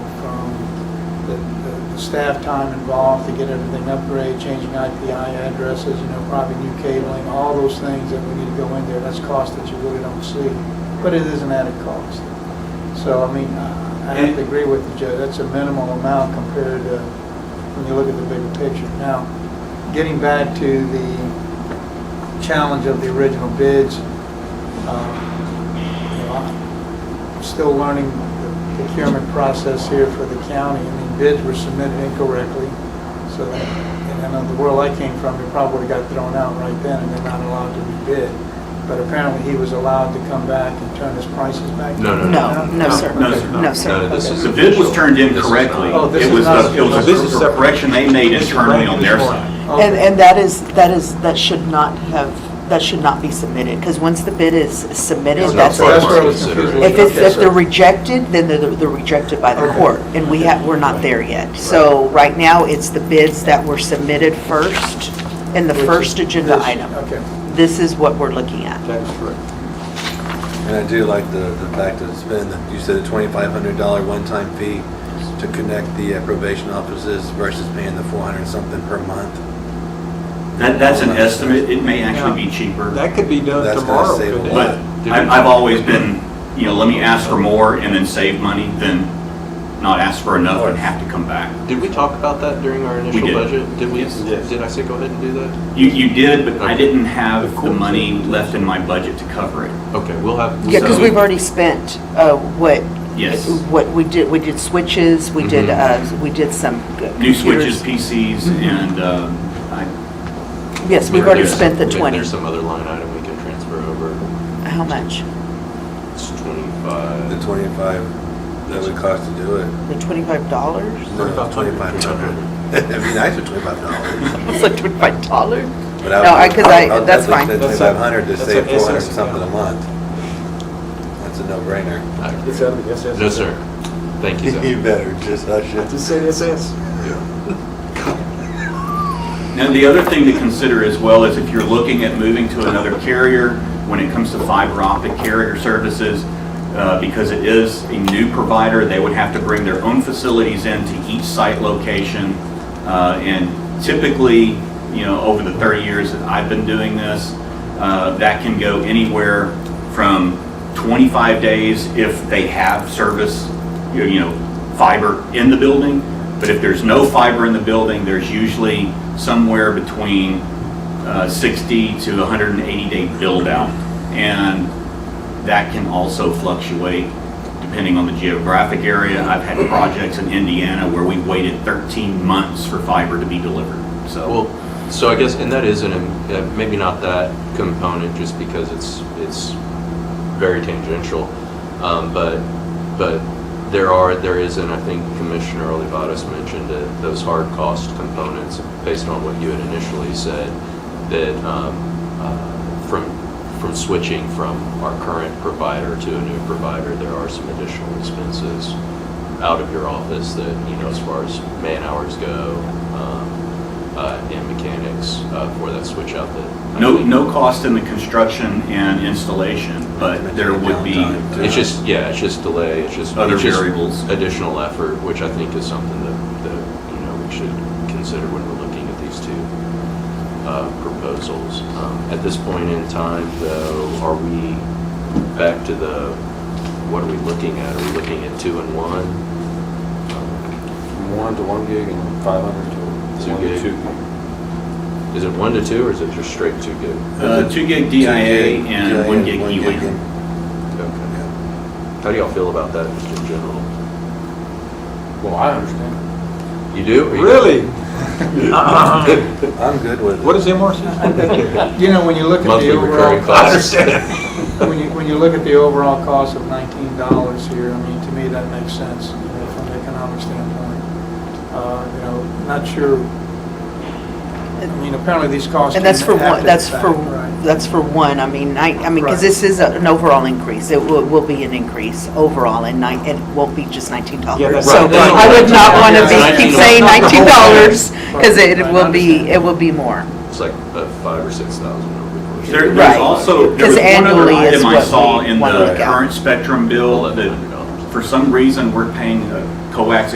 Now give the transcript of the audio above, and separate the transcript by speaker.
Speaker 1: the- the the staff time involved to get everything upgraded, changing IP addresses, you know, probably new cabling, all those things that we need to go in there, that's cost that you really don't see, but it is an added cost. So, I mean, I I have to agree with you, Joe, that's a minimal amount compared to, when you look at the bigger picture. Now, getting back to the challenge of the original bids, um, you know, I'm still learning the procurement process here for the county. I mean, bids were submitted incorrectly, so that, and in the world I came from, it probably got thrown out right then, and they're not allowed to rebid. But apparently, he was allowed to come back and turn his prices back.
Speaker 2: No, no,
Speaker 3: No, no, sir.
Speaker 4: No, sir, no.
Speaker 3: No, sir.
Speaker 2: this is
Speaker 4: The bid was turned in
Speaker 2: This is
Speaker 4: correctly.
Speaker 2: not-
Speaker 1: Oh, this
Speaker 4: It
Speaker 1: is
Speaker 4: was,
Speaker 1: not-
Speaker 4: a- it was
Speaker 1: this is
Speaker 4: a
Speaker 1: separate.
Speaker 4: correction they made internally on their side.
Speaker 1: Okay.
Speaker 3: And, and that is, that is, that should not have, that should not be submitted, because once the bid is submitted,
Speaker 2: It's not
Speaker 3: that's,
Speaker 1: So that's where I was
Speaker 2: If
Speaker 1: confused.
Speaker 3: if it's,
Speaker 1: Okay,
Speaker 3: if
Speaker 1: so-
Speaker 3: they're rejected, then they're, they're rejected by the
Speaker 1: Okay.
Speaker 3: court, and we have, we're not there yet. So right now, it's the bids that were submitted first, and the
Speaker 1: Which is
Speaker 3: first agenda
Speaker 1: this-
Speaker 3: item.
Speaker 1: Okay.
Speaker 3: This is what we're looking at.
Speaker 5: That's correct. And I do like the, the fact that it's been, you said a twenty-five hundred dollar one-time fee to connect the uh, probation offices versus paying the four hundred something per month.
Speaker 4: That, that's an estimate, it may actually be cheaper,
Speaker 1: That could be done
Speaker 5: That's gonna
Speaker 1: tomorrow,
Speaker 5: save a
Speaker 1: couldn't it?
Speaker 4: but I've, I've always been, you know, let me ask for more and then save money than not ask for enough and have to come back.
Speaker 6: Did we talk about that during our initial
Speaker 4: did.
Speaker 6: budget? Did we,
Speaker 5: Yes.
Speaker 6: did I say go ahead and do that?
Speaker 4: You, you did, but I
Speaker 6: Okay.
Speaker 4: didn't have the money left in my budget to cover it.
Speaker 6: Okay, we'll have.
Speaker 3: Yeah, because
Speaker 4: So-
Speaker 3: we've already spent, uh, what?
Speaker 4: Yes.
Speaker 3: What, we did, we did switches, we did,
Speaker 2: Mhm.
Speaker 3: uh, we did some.
Speaker 4: New
Speaker 3: computers.
Speaker 4: switches, PCs,
Speaker 1: Mm-hmm.
Speaker 4: and, um, I,
Speaker 3: Yes, we've already spent the 20.
Speaker 6: There's some other line item we can transfer over.
Speaker 3: How much?
Speaker 6: It's
Speaker 5: The
Speaker 6: 25.
Speaker 5: twenty-five that would cost to do it.
Speaker 3: The $25?
Speaker 5: No, twenty-five hundred. It'd be nice for twenty-five dollars.
Speaker 3: It's like $25?
Speaker 5: But I
Speaker 3: No, I-
Speaker 5: would-
Speaker 3: 'cause I-
Speaker 5: I would
Speaker 3: that's
Speaker 5: definitely
Speaker 3: fine.
Speaker 5: spend twenty-five hundred to
Speaker 7: That's a-
Speaker 5: save
Speaker 7: that's a-
Speaker 5: four hundred something a month. That's a no-brainer.
Speaker 6: I agree.
Speaker 7: Yes, sir. yes, yes.
Speaker 6: No, sir. Thank you, sir.
Speaker 5: You better just hush it.
Speaker 7: Just say yes, yes.
Speaker 4: Now, the other thing to consider as well is if you're looking at moving to another carrier, when it comes to fiber optic carrier services, uh, because it is a new provider, they would have to bring their own facilities into each site location. Uh, And typically, you know, over the 30 years that I've been doing this, uh, that can go anywhere from 25 days if they have service, you you know, fiber in the building, but if there's no fiber in the building, there's usually somewhere between uh, 60 to 180 day build out. And that can also fluctuate depending on the geographic area. I've had projects in Indiana where we waited 13 months for fiber to be delivered, so.
Speaker 6: Well, so I guess, and that is an, im- uh, maybe not that component, just because it's, it's very tangential. Um, but, but there are, there is, and I think Commissioner Olivatos mentioned it, those hard cost components, based on what you had initially said, that, um, uh, from, from switching from our current provider to a new provider, there are some additional expenses out of your office that, you know, as far as man hours go, um, uh, and mechanics uh, for that switch out that.
Speaker 4: No, no cost in the construction and installation, but there would be. uh,
Speaker 6: It's just, yeah, it's just delay, it's just.
Speaker 4: Other
Speaker 6: it's just
Speaker 4: variables.
Speaker 6: Additional effort, which I think is something that, that, you know, we should consider when we're looking at these two uh, proposals. Um, At this point in time, though, are we back to the, what are we looking at? Are we looking at two and one?
Speaker 7: One to one gig and five hundred
Speaker 6: Two gig. Is it one to two, or is it just straight two gig?
Speaker 4: Uh, Two gig DIA and one gig E UAN.
Speaker 6: Okay.
Speaker 5: Yeah.
Speaker 6: How do y'all feel about that just in general?
Speaker 7: Well, I understand.
Speaker 6: You do? or you don't?
Speaker 7: Really?
Speaker 5: I'm good with it.
Speaker 7: What is MRC?
Speaker 1: You know, when you look at
Speaker 6: Monthly
Speaker 1: the
Speaker 6: recurring
Speaker 1: overall,
Speaker 6: costs.
Speaker 1: when you, when you look at the overall cost of nineteen dollars here, I mean, to me, that makes sense, you know, from an economic standpoint. Uh, You know, not sure, I mean, apparently these costs.
Speaker 3: And that's
Speaker 1: came
Speaker 3: for
Speaker 1: after
Speaker 3: one,
Speaker 1: the
Speaker 3: that's
Speaker 1: fact,
Speaker 3: for,
Speaker 1: right.
Speaker 3: that's for one, I mean, I, I mean,
Speaker 1: Right.
Speaker 3: because this is a- an overall increase, it will, will be an increase overall, and nine, it won't be just nineteen
Speaker 7: Yeah,
Speaker 3: dollars.
Speaker 7: that's-
Speaker 3: So
Speaker 6: Right, that's
Speaker 3: I would
Speaker 6: not-
Speaker 3: not want to
Speaker 1: that's
Speaker 3: be, keep
Speaker 6: $19.
Speaker 3: saying
Speaker 1: Not the
Speaker 3: nineteen
Speaker 1: whole
Speaker 3: dollars, because
Speaker 1: Right,
Speaker 3: it
Speaker 1: I
Speaker 3: will be,
Speaker 1: understand.
Speaker 3: it will be more.
Speaker 6: It's like a five or six thousand over the course. of
Speaker 4: There-
Speaker 6: the
Speaker 4: There's
Speaker 3: Right.
Speaker 6: year.
Speaker 4: also, there
Speaker 3: Because
Speaker 4: was one other
Speaker 3: annually is
Speaker 4: item I
Speaker 3: what
Speaker 4: saw
Speaker 3: we
Speaker 4: in
Speaker 3: wanna
Speaker 4: the
Speaker 3: look at.
Speaker 4: current Spectrum bill
Speaker 6: Eleven
Speaker 4: that
Speaker 6: hundred dollars.
Speaker 4: for some reason we're paying a coax